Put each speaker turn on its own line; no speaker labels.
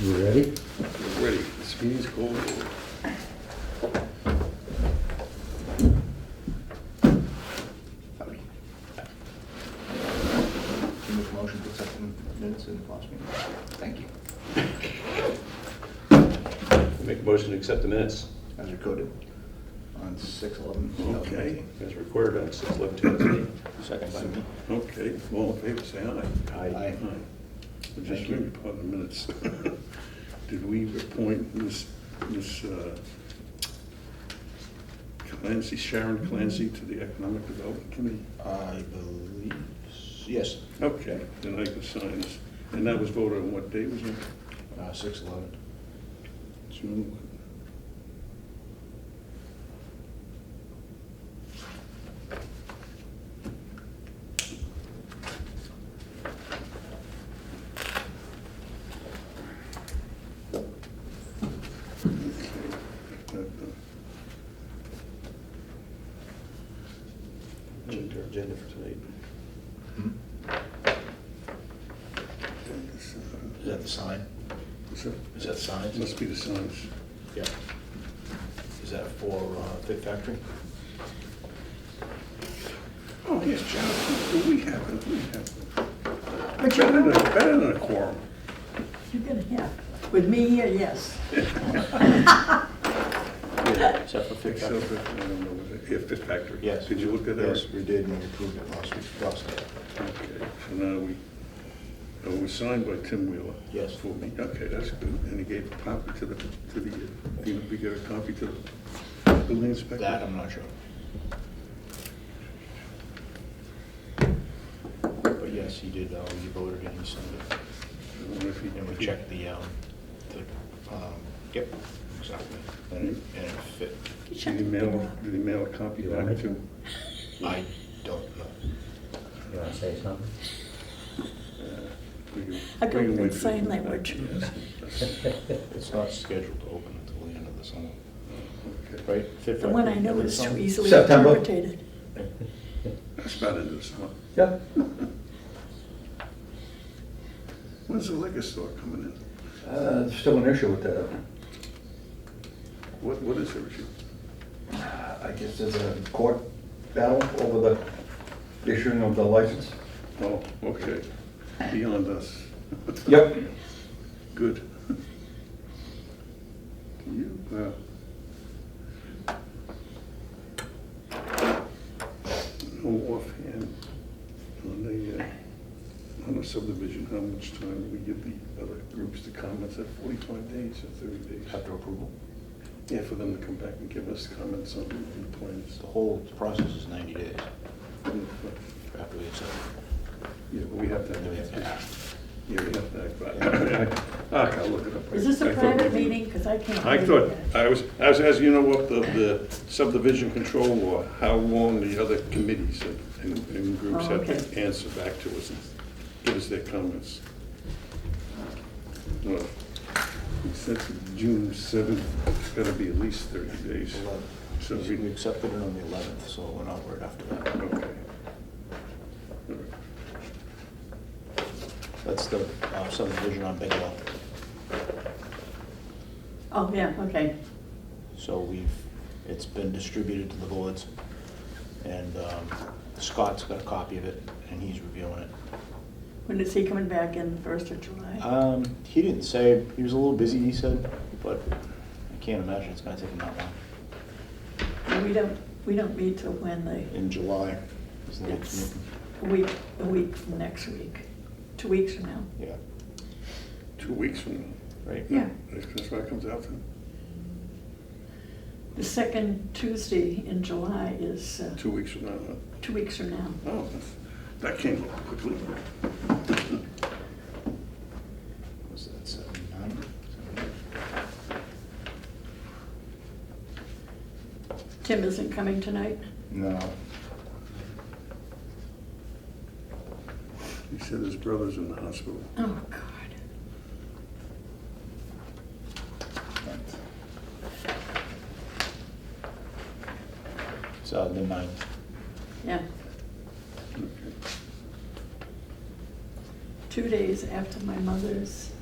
You ready?
Ready, this meeting's called.
Can you make a motion to accept the minutes in the last meeting? Thank you.
Make a motion to accept the minutes.
As recorded on six eleven.
Okay, as recorded on six eleven two thousand eight.
Second by me.
Okay, all in favor, say aye.
Aye.
Well, Just
Thank you.
read upon the minutes. Did we appoint Miss Miss uh, Clancy, Sharon Clancy to the Economic Development Committee?
I believe, s- yes,
Okay, then I can sign this. And that was voted on what day was it?
uh, six eleven.
June what? Okay, that, uh,
Agenda agenda for tonight.
Hmm?
this, uh,
Is that the sign?
is that-
Is that signs?
Must be the signs.
Yeah. Is that for uh, Fit Factory?
Oh, yes, John, we have it, we have it. Better than, a- better than a quorum.
You're gonna have, with me here, yes.
Except for Fit
Except for, I don't know, was it- yeah, Fifth Factory.
Yes.
Did you look at that?
Yes, we did, and we approved it last week, last night.
Okay, so now we, oh, it was signed by Tim Wheeler.
Yes.
For me, okay, that's good, and he gave a copy to the, to the, uh, you know, we get a copy to the building inspector?
That, um, I'm not sure. But yes, he did, uh, we voted and he signed it.
I wonder if he-
And we checked the, um, the, um, yep, exactly. And it, and it fit.
Did he mail, did he mail a copy
You want
back
me
to?
I don't know.
You wanna say something?
to uh, you?
I go
You
with
went to-
sign language.
Yes,
It's not scheduled to open until the end of the summer,
okay.
right? Fit
The one I
Factory,
know
end of the
is too
summer?
easily
September.
interpreted.
That's about it, this one.
Yeah.
When's the liquor store coming in?
Uh, still an issue with that.
What, what is the issue?
I guess there's a court battle over the issuing of the license.
Oh, okay, beyond us.
Yep.
Good. You, uh, no offhand, on the, uh, on the subdivision, how much time do we give the other groups to comment? Is that forty-five days or thirty days?
After approval.
Yeah, for them to come back and give us comments on the plans.
The whole process is ninety days after we accept.
Yeah, but we have to.
And then we have to act.
Yeah, we have to act by. I can look it up.
Is this
I
a
thought
private
maybe-
meeting? Because I can't.
I
read
thought,
that.
I was, I was asking, you know, what the, the subdivision control law, how long the other committees and, and- and groups
Oh,
have to
okay.
answer back to us and give us their comments. Well, since June seventh, it's gotta be at least thirty days. So
So we
we,
accepted it on the eleventh, so it went outward after that.
okay.
That's the uh, subdivision on Bigelow.
Oh, yeah, okay.
So we've, it's been distributed to the boards, and um, Scott's got a copy of it, and he's reviewing it.
When is he coming back in, first of July?
Um, He didn't say, he was a little busy, he said, but I can't imagine it's gonna take him that long.
We don't, we don't meet till when they,
In July is the next
it's
meeting.
a week, a week from next week, two weeks from now.
Yeah,
Two weeks from now.
right?
Yeah.
That's why it comes out then,
The second Tuesday in July is uh,
two weeks from now. huh?
two weeks from now.
Oh, that's- that came up quickly.
Was that seventy-nine?
Tim isn't coming tonight?
No.
He said his brother's in the hospital.
Oh, God.
It's uh, the ninth.
Yeah,
Okay.
two days after my mother's